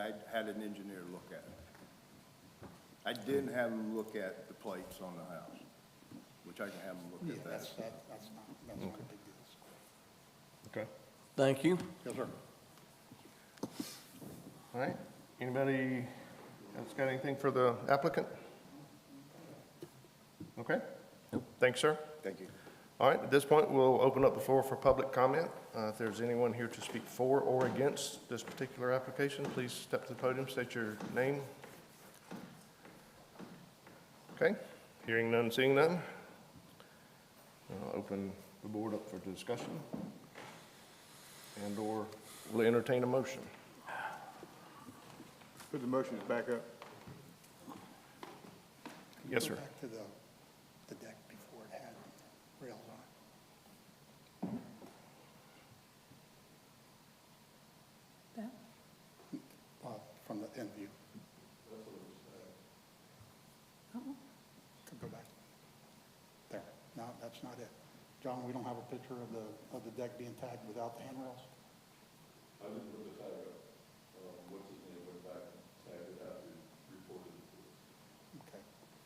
I had an engineer look at it. I didn't have him look at the plates on the house, which I can have him Yeah, look at that's, that. that- that's not, that's not a big deal. Okay. Thank you. Yes, sir. All right. Anybody else got anything for the applicant? Okay. Thanks, sir. Thank you. All right, at this point, we'll open up the floor for public comment. Uh, If there's anyone here to speak for or against this particular application, please step to the podium, state your name. Okay, hearing none, seeing none. I'll open the board up for discussion and/or will entertain a motion. Put the motions back up. Yes, sir. Go Back to the, the deck before it had rails on it. That? Uh, from the end view, Uh-uh. to go back. There, no, that's not it. John, we don't have a picture of the, of the deck being tagged without the handrails?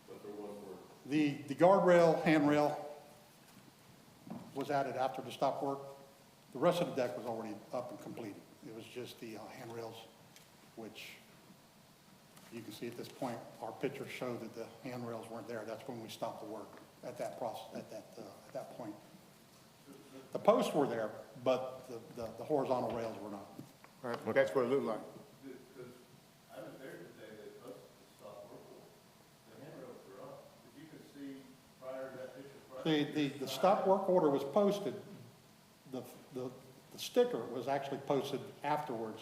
I didn't put the tag up. Um, what's his name went back and tagged it out and reported it. Okay. But there was The, the guardrail, handrail was added after the stop work. The rest of the deck was already up and completed. It was just the uh, handrails, which you can see at this point, our pictures show that the handrails weren't there. That's when we stopped the work at that process, at that, uh, at that point. The posts were there, but the, the- the horizontal rails were not. All right, That's what it looked like. The, the, the stop work order was posted, the, the the sticker was actually posted afterwards,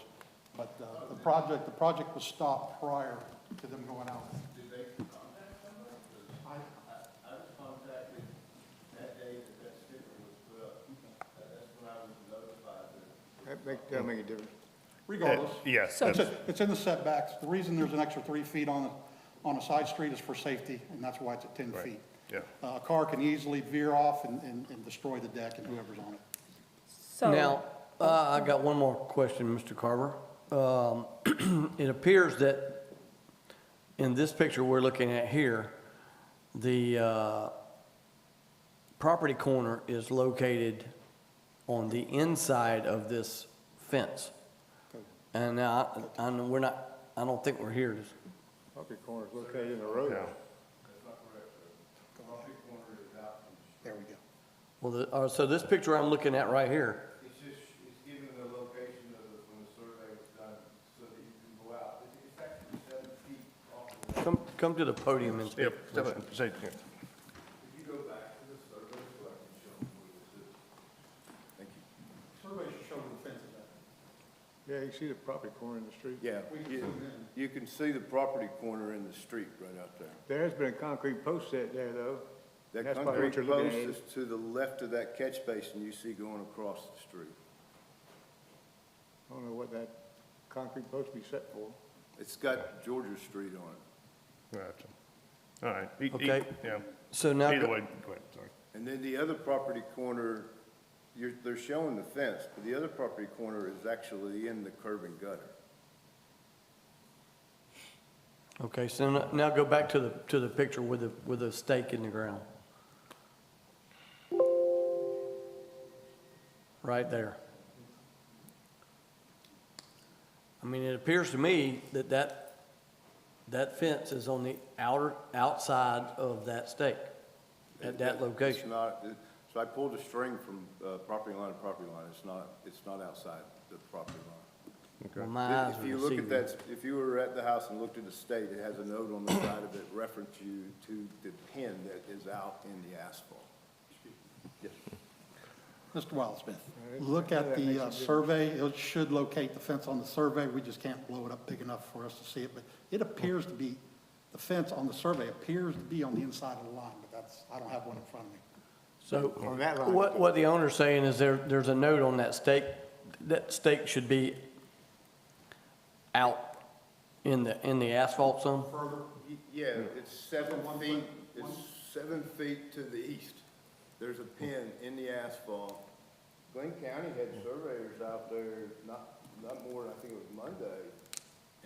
but uh, the project, the project was stopped prior to them going out. That, that doesn't make a difference. Regardless. Yes. It's, it's in the setbacks. The reason there's an extra three feet on, the- on a side street is for safety, and that's why it's at ten Right, feet. yeah. Uh, A car can easily veer off and, and, and destroy the deck and whoever's on it. Now, uh, I got one more question, Mr. Carver. Um, It appears that in this picture we're looking at here, the uh, property corner is located on the inside of this fence. And now, I, I know we're not, I don't think we're here. Property corner's located in the road. Yeah. There we go. Well, the- uh, so this picture I'm looking at right here, It's just, it's given the location of the, when the survey was done, so that you can go out. It's it's actually seven feet off the come, come to the podium and speak. Yep. step up, say it again. Survey should show the fence is Yeah, you can see the property corner in the street. Yeah, you, you can see the property corner in the street right out there. There has been a concrete post set there, though. That That's probably concrete what you're looking post at. is to the left of that catch basin you see going across the street. I don't know what that concrete post be set for. It's got Georgia Street on it. Gotcha. All right. E- e- Okay. Yeah. So now. Either way, go ahead, sorry. And then the other property corner, you're, they're showing the fence, but the other property corner is actually in the curb and gutter. Okay, so now- now go back to the, to the picture with the, with the stake in the ground. Right there. I mean, it appears to me that that, that fence is on the outer, outside of that stake, at that It's location. not, it- so I pulled a string from, uh, property line to property line. It's not, it's not outside the property line. Well, My eyes If were you look at deceiving. that, if you were at the house and looked at the state, it has a note on the side of it reference you to the pin that is out in the asphalt. Mr. Wildsmith, look at That makes the a uh, difference. survey. It should locate the fence on the survey. We just can't blow it up big enough for us to see it, but it appears to be, the fence on the survey appears to be on the inside of the line, but that's, I don't have one in front of me. So On that line. what, what the owner's saying is there, there's a note on that stake, that stake should be out in the, in the asphalt some? Y- Yeah, it's seven feet, it's seven feet to the east. There's a pin in the asphalt. Glenn County had surveyors out there, not, not more, than I think it was Monday,